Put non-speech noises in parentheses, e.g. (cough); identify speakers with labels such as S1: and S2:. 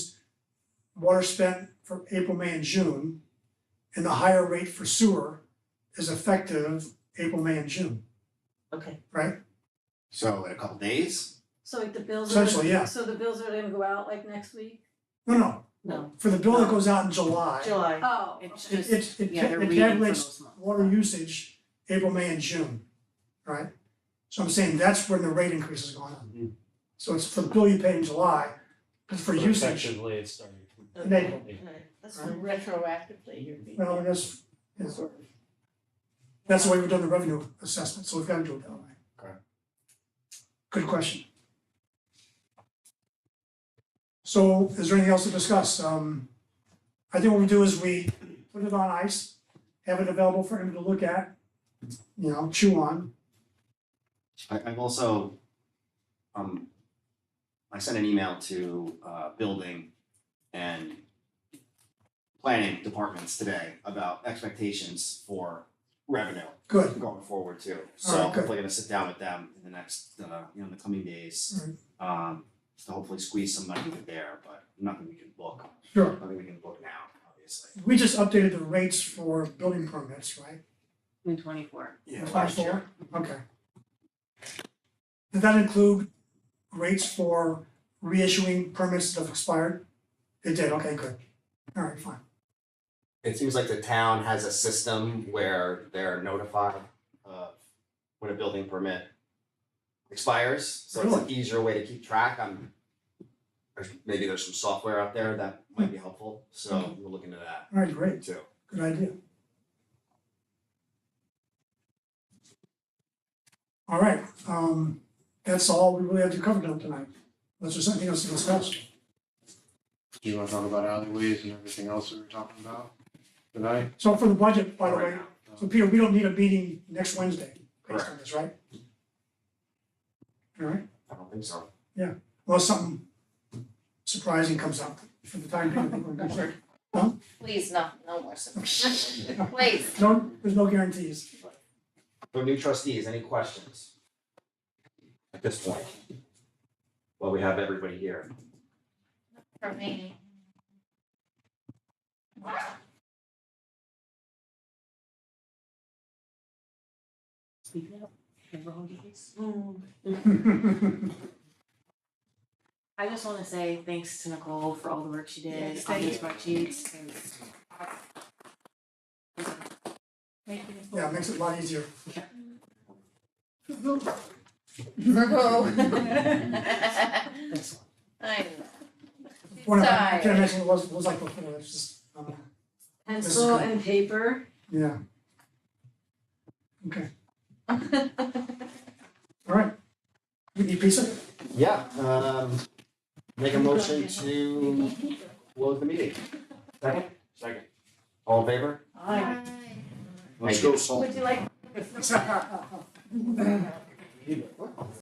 S1: water spent for April, May and June. And the higher rate for sewer is effective April, May and June,
S2: Okay,
S1: right?
S3: So in a couple days,
S4: So like the bills are,
S1: Essentially, yeah.
S4: gonna- so the bills are gonna go out like next week?
S1: No, no,
S2: no,
S1: for the bill that goes out in July, it
S2: July,
S4: Oh,
S5: It's
S4: okay.
S1: it
S5: just,
S1: it
S5: yeah, they're
S1: it
S5: reading for
S1: calculates
S5: those months.
S1: water usage April, May and June, right? So I'm saying that's when the rate increase is going on.
S3: Mm.
S1: So it's for the bill you pay in July, but for
S6: But
S1: usage,
S6: Effectively, it's starting.
S2: okay,
S1: They-
S2: alright, that's fine. Retroactively, you're being.
S1: well, I guess, it's- that's the way we've done the revenue assessment, so we've gotta do it that way.
S3: Okay.
S1: Good question. So is there anything else to discuss? Um, I think what we do is we put it on ice, have it available for him to look at, you know, chew on.
S3: I, I've also, um, I sent an email to, uh, building and planning departments today about expectations for revenue
S1: Good,
S3: going forward too.
S1: All
S3: So
S1: right, good.
S3: hopefully gonna sit down with them in the next, uh, you know, in the coming days. Um, to hopefully squeeze some money in there, but nothing we can book,
S1: sure.
S3: nothing we can book now, obviously.
S1: We just updated the rates for building permits, right?
S5: In twenty-four.
S3: Yeah,
S1: Last year. Okay. Did that include rates for reissuing permits that have expired? It did, okay, good. All right, fine.
S3: It seems like the town has a system where they're notified of when a building permit expires, so it's an easier way to keep track, I'm there's, maybe there's some software out there that might be
S1: Hmm.
S3: helpful, so we'll look into that
S1: All right, great,
S3: too.
S1: good idea. All right, um, that's all we really have to cover now tonight. Unless there's something else to discuss.
S7: Do you wanna talk about alleyways and everything else that we were talking about tonight?
S1: So for the budget, by the
S3: Right
S1: way,
S3: now.
S1: so Peter, we don't need a meeting next Wednesday based on this, right? All right.
S3: I don't think so.
S1: unless something surprising comes up for the time being. (laughs) we're gonna do it.
S8: Please, no, no more surprises. Please.
S1: No, there's no guarantees.
S3: For new trustees, any questions? At this point? Well, we have everybody here.
S8: For me.
S5: Speak now. Remember who it is? I just wanna say thanks to Nicole for all the work she did
S8: Yes,
S5: on
S8: thank
S5: these spreadsheets and. Thank you, Nicole.
S1: Yeah, it makes it a lot easier.
S8: I know.
S1: One of, I
S8: Sorry.
S1: can't imagine what it was, what it was like before, it's just, um,
S4: Pencil
S5: (laughs)
S4: and paper,
S1: yeah. Okay, all right. You need pizza?
S3: Yeah, um, make a motion to close the meeting. Second? Second. All in favor?
S2: Aye.
S3: Let's go,
S8: Would you like?
S3: (laughs)
S1: All
S3: What?